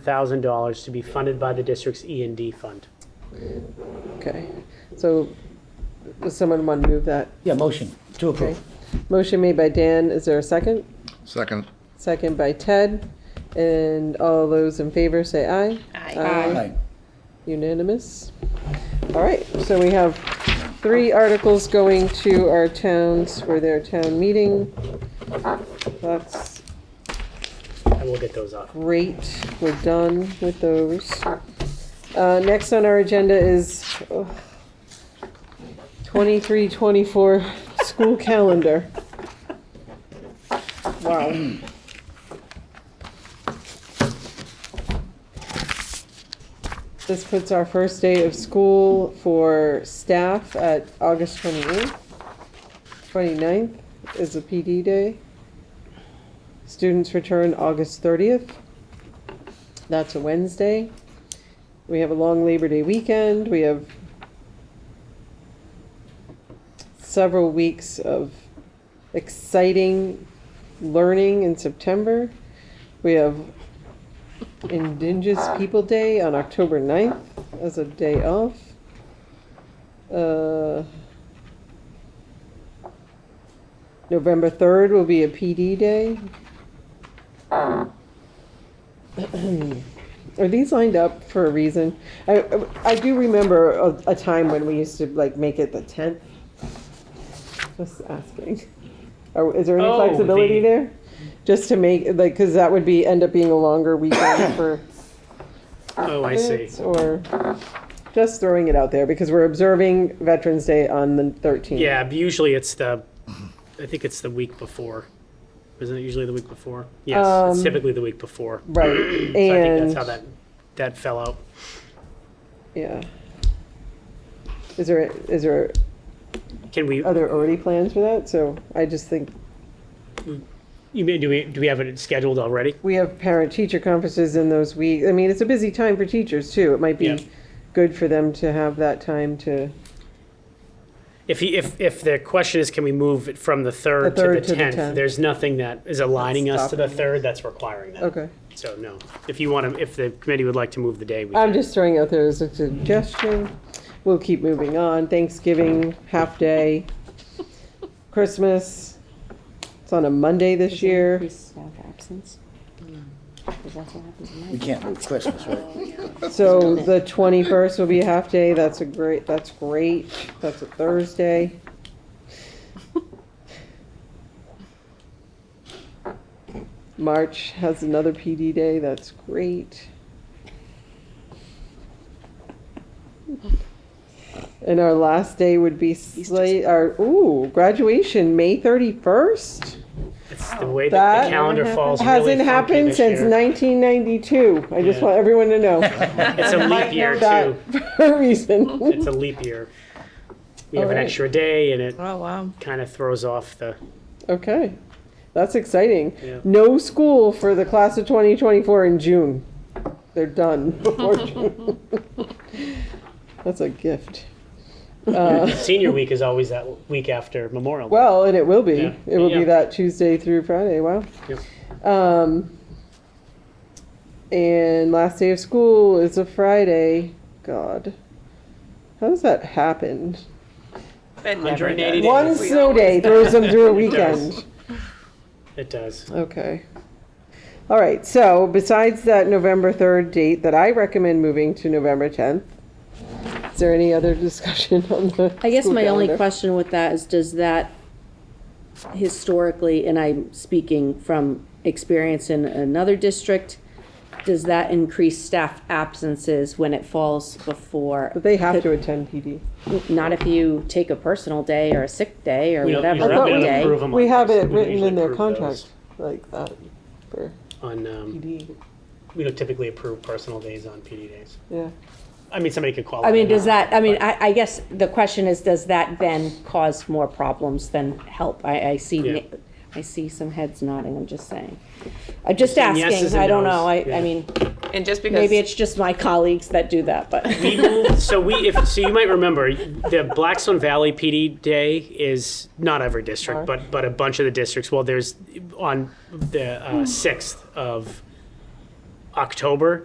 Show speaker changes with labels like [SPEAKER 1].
[SPEAKER 1] $100,000 to be funded by the district's E and D fund.
[SPEAKER 2] Okay, so does someone want to move that?
[SPEAKER 3] Yeah, motion to
[SPEAKER 2] Okay.
[SPEAKER 3] approve.
[SPEAKER 2] Motion made by Dan. Is there a second?
[SPEAKER 4] Second.
[SPEAKER 2] Second by Ted. And all those in favor say aye.
[SPEAKER 3] Aye.
[SPEAKER 2] Unanimous. All right, so we have three articles going to our towns for their town meeting. That's
[SPEAKER 1] I will get those up.
[SPEAKER 2] great. We're done with those. Uh, next on our agenda is oh, ugh, 23, 24 school calendar. Wow. This puts our first day of school for staff at August 28th. 29th is a PD day. Students return August 30th. That's a Wednesday. We have a long Labor Day weekend. We have several weeks of exciting learning in September. We have Indigenous People Day on October 9th as a day off. Uh, November 3rd will be a PD day. Are these lined up for a reason? I, I do remember a, a time when we used to like make it the 10th. Just asking. Or is there any
[SPEAKER 1] Oh,
[SPEAKER 2] flexibility
[SPEAKER 1] the-
[SPEAKER 2] there? Just to make, like, because that would be, end up being a longer weekend for
[SPEAKER 1] Oh, I see.
[SPEAKER 2] kids or just throwing it out there because we're observing Veterans Day on the 13th.
[SPEAKER 1] Yeah, but usually it's the, I think it's the week before. Isn't it usually the week before? Yes, it's
[SPEAKER 2] Um,
[SPEAKER 1] typically the week before.
[SPEAKER 2] Right.
[SPEAKER 1] So I think that's
[SPEAKER 2] And
[SPEAKER 1] how that, that fell out.
[SPEAKER 2] Yeah. Is there, is there,
[SPEAKER 1] Can we,
[SPEAKER 2] are there already plans for that? So I just think,
[SPEAKER 1] you mean, do we, do we have it scheduled already?
[SPEAKER 2] we have parent-teacher conferences in those weeks. I mean, it's a busy time for teachers too. It might
[SPEAKER 1] Yeah.
[SPEAKER 2] be good for them to have that time to,
[SPEAKER 1] If he, if, if the question is, can we move it from the third
[SPEAKER 2] The
[SPEAKER 1] to the
[SPEAKER 2] third to the 10th.
[SPEAKER 1] tenth? There's nothing that is aligning us to the
[SPEAKER 2] stopping
[SPEAKER 1] third that's requiring that.
[SPEAKER 2] okay.
[SPEAKER 1] So no, if you want to, if the committee would like to move the day, we
[SPEAKER 2] I'm
[SPEAKER 1] can.
[SPEAKER 2] just throwing out there as a suggestion. We'll keep moving on. Thanksgiving, half day. Christmas. It's on a Monday this year.
[SPEAKER 5] Increased staff absence. Because that's what happens in my.
[SPEAKER 3] We can't move Christmas, right?
[SPEAKER 2] So the twenty-first will be a half day. That's a great, that's great. That's a Thursday. March has another PD day. That's great. And our last day would be slate, our, ooh, graduation, May thirty-first?
[SPEAKER 1] It's the way that
[SPEAKER 2] That
[SPEAKER 1] the calendar falls really
[SPEAKER 2] Hasn't
[SPEAKER 1] funky
[SPEAKER 2] happened
[SPEAKER 1] this
[SPEAKER 2] since
[SPEAKER 1] year.
[SPEAKER 2] nineteen ninety-two. I just
[SPEAKER 1] Yeah.
[SPEAKER 2] want everyone to know.
[SPEAKER 1] It's a leap year
[SPEAKER 2] that
[SPEAKER 1] too.
[SPEAKER 2] for a reason.
[SPEAKER 1] It's a leap year. We have an
[SPEAKER 2] Alright.
[SPEAKER 1] extra day and it
[SPEAKER 6] Oh, wow.
[SPEAKER 1] kind of throws off the,
[SPEAKER 2] Okay, that's exciting.
[SPEAKER 1] Yeah.
[SPEAKER 2] No school for the class of 2024 in June. They're done before June. That's a gift.
[SPEAKER 1] senior week is always that week after Memorial. Day.
[SPEAKER 2] Well, and it will be.
[SPEAKER 1] Yeah.
[SPEAKER 2] It will
[SPEAKER 1] Yeah.
[SPEAKER 2] be that Tuesday through Friday. Wow.
[SPEAKER 1] Yep.
[SPEAKER 2] Um, and last day of school is a Friday. God, how does that happen?
[SPEAKER 6] It never
[SPEAKER 1] 180
[SPEAKER 6] does.
[SPEAKER 1] days.
[SPEAKER 2] One
[SPEAKER 6] We
[SPEAKER 2] snow
[SPEAKER 6] always-
[SPEAKER 2] day throws them through a
[SPEAKER 1] It does.
[SPEAKER 2] weekend.
[SPEAKER 1] It does.
[SPEAKER 2] Okay. All right, so besides that November 3rd date that I recommend moving to November 10th, is there any other discussion on the?
[SPEAKER 5] I guess
[SPEAKER 2] school
[SPEAKER 5] my only
[SPEAKER 2] calendar?
[SPEAKER 5] question with that is, does that historically, and I'm speaking from experience in another district, does that increase staff absences when it falls before?
[SPEAKER 2] But they have to attend PD.
[SPEAKER 5] Not if you take a personal day or a sick day or
[SPEAKER 1] We don't- we
[SPEAKER 5] whatever,
[SPEAKER 1] don't
[SPEAKER 2] thought we-
[SPEAKER 5] holiday.
[SPEAKER 1] approve 'em
[SPEAKER 2] We
[SPEAKER 1] like
[SPEAKER 2] have
[SPEAKER 1] this.
[SPEAKER 2] it
[SPEAKER 1] We
[SPEAKER 2] written
[SPEAKER 1] usually
[SPEAKER 2] in their
[SPEAKER 1] approve those
[SPEAKER 2] contract like that for
[SPEAKER 1] On, um,
[SPEAKER 2] PD,
[SPEAKER 1] we don't typically approve personal days on PD days.
[SPEAKER 2] yeah.
[SPEAKER 1] I mean, somebody could call.
[SPEAKER 5] I
[SPEAKER 1] it
[SPEAKER 5] mean,
[SPEAKER 1] an
[SPEAKER 5] does that, I mean,
[SPEAKER 1] but-
[SPEAKER 5] I, I guess the question is, does that then cause more problems than help? I, I
[SPEAKER 1] Yeah.
[SPEAKER 5] see, I see some heads nodding, I'm just saying. I'm just
[SPEAKER 1] Saying yeses
[SPEAKER 5] asking,
[SPEAKER 1] and
[SPEAKER 5] I don't
[SPEAKER 1] nos,
[SPEAKER 5] know, I,
[SPEAKER 1] yeah.
[SPEAKER 5] I mean,
[SPEAKER 6] And just because.
[SPEAKER 5] maybe it's just my colleagues that do that, but.
[SPEAKER 1] We moved, so we, if, so you might remember, the Blackstone Valley PD Day is not every district, but, but a bunch of the districts. Well, there's on the sixth of uh, October